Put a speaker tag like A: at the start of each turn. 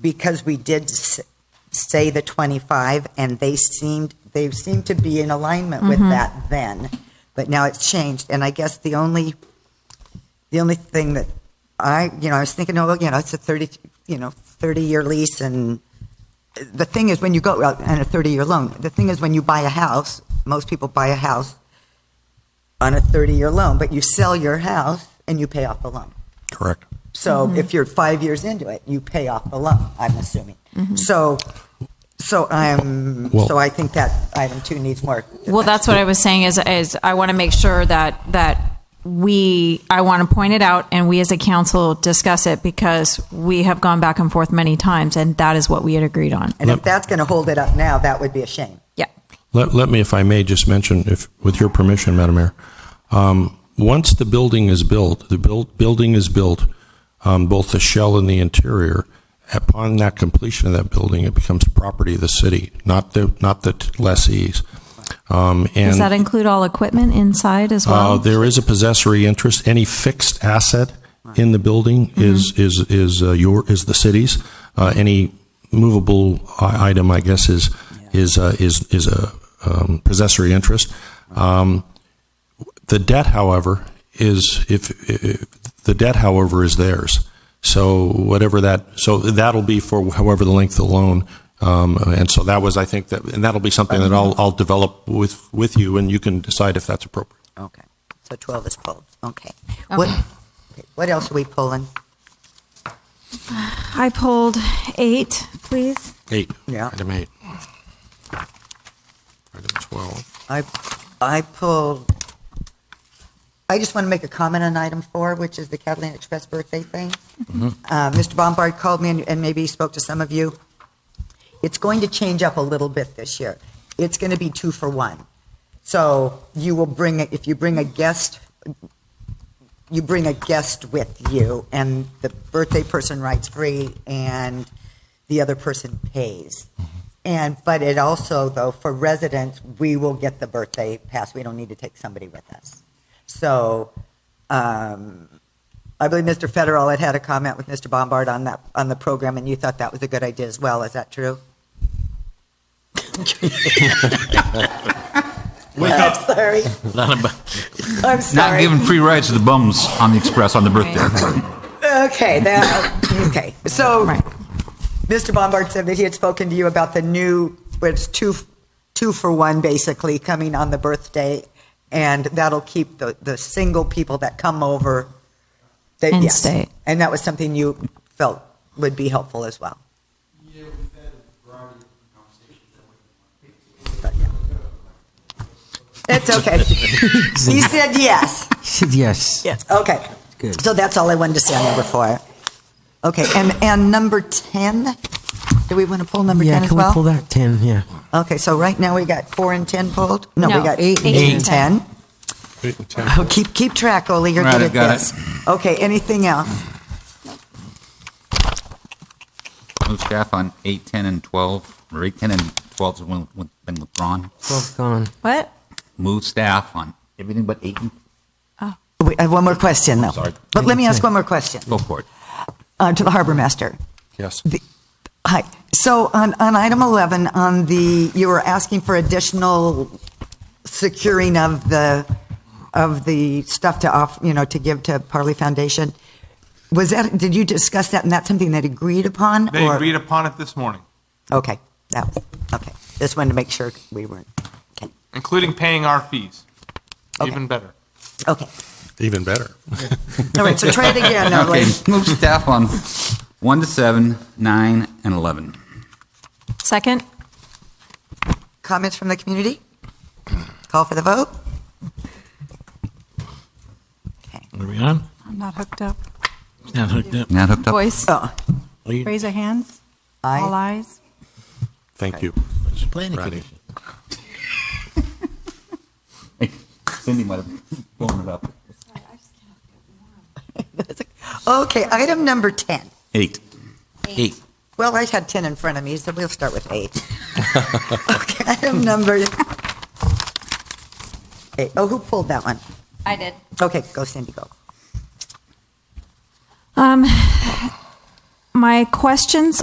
A: because we did s- say the 25, and they seemed, they seemed to be in alignment with that then, but now it's changed, and I guess the only, the only thing that I, you know, I was thinking, oh, well, you know, it's a 30, you know, 30-year lease, and the thing is, when you go, well, and a 30-year loan, the thing is, when you buy a house, most people buy a house on a 30-year loan, but you sell your house and you pay off the loan.
B: Correct.
A: So if you're five years into it, you pay off the loan, I'm assuming. So, so I'm,
B: Well-
A: so I think that item two needs more.
C: Well, that's what I was saying is, is I want to make sure that, that we, I want to point it out and we as a council discuss it because we have gone back and forth many times and that is what we had agreed on.
A: And if that's going to hold it up now, that would be a shame.
C: Yeah.
B: Let, let me, if I may, just mention, if, with your permission, Madam Mayor, um, once the building is built, the build, building is built, um, both the shell and the interior, upon that completion of that building, it becomes property of the city, not the, not the lessees. Um,
C: Does that
B: and,
C: include all equipment inside as
B: uh,
C: well?
B: there is a possessory interest, any fixed asset in the building is, is, is uh, your, is the city's. Uh, any movable i- item, I guess, is, is, uh, is, is a, um, possessory interest. Um, The debt, however, is if, if the debt, however, is theirs. So whatever that, so that'll be for however the length of the loan. Um, and so that was, I think that, and that'll be something that I'll, I'll develop with, with you and you can decide if that's appropriate.
A: Okay. So 12 is pulled, okay. What, what else are we pulling?
C: I pulled eight, please.
B: Eight.
A: Yeah.
B: Item eight. Item 12.
A: I, I pulled, I just want to make a comment on item four, which is the Catalina Express birthday thing. Uh, Mr. Bombard called me and- and maybe he spoke to some of you. It's going to change up a little bit this year. It's going to be two for one. So you will bring, a- if you bring a guest, you bring a guest with you and the birthday person writes free and the other person pays. And, but it also, though, for residents, we will get the birthday pass. We don't need to take somebody with us. So, um, I believe Mr. Federal had had a comment with Mr. Bombard on that, on the program, and you thought that was a good idea as well. Is that true? I'm sorry.
D: Not, about,
A: I'm
D: not
A: sorry.
D: giving free rides to the bums on the express on the birthday.
A: Okay, that, okay. So,
C: Right.
A: Mr. Bombard said that he had spoken to you about the new, where it's two, two for one, basically, coming on the birthday, and that'll keep the, the single people that come over. that-
C: And
A: yes.
C: stay.
A: And that was something you felt would be helpful as well.
E: Yeah, we've had a variety of conversations that way.
A: It's okay. He said yes.
F: Yes.
A: Yes. Okay.
F: Good.
A: So that's all I wanted to say on number four. Okay, and, and number 10? Do we want to pull number 10
F: Yeah,
A: as
F: can we
A: well?
F: pull that 10? Yeah.
A: Okay, so right now we got four and 10 pulled? No, we
C: No,
A: got
C: eight
A: eight
C: and
A: and 10.
C: ten.
B: Eight and 10.
A: Oh, keep, keep track, Ole, you're
D: Right,
A: good
D: I've
A: at
D: got
A: this. Okay, anything else?
D: Move staff on 8, 10, and 12, or 8, 10, and 12 has been- been withdrawn.
F: 12 gone.
C: What?
D: Move staff on everything but 8 and,
A: We I have one more question, though.
D: Sorry.
A: But let me ask one more question
D: go for it.
A: uh, to the harbor master.
B: Yes.
A: Hi, so on, on item 11, on the, you were asking for additional securing of the, of the stuff to off, you know, to give to Parley Foundation. Was that, did you discuss that, and that's something that agreed upon?
E: They
A: or-
E: agreed upon it this morning,
A: Okay, that, was okay. Just wanted to make sure we weren't, okay,
E: including paying our fees.
A: Okay.
E: Even better.
A: okay.
B: Even better.
A: All right, so try it again, now,
D: Okay,
A: Lee.
D: move staff on 1 to 7, 9, and 11.
C: Second?
A: Comments from the community? Call for the vote?
G: Are we on?
H: I'm not hooked up.
G: Not hooked up.
D: Not hooked up?
H: Voice,
A: Oh,
H: raise your hands, all
A: aye.
H: eyes.
B: Thank you.
G: Planning
B: Ready.
G: commission.
D: Cindy might have blown it up.
A: Okay, item number 10.
D: 8. 8.
A: Well, I had 10 in front of me, so we'll start with eight. Okay, item number, eight. Oh, who pulled that one?
C: I did.
A: Okay, go Cindy, go.
C: Um, my questions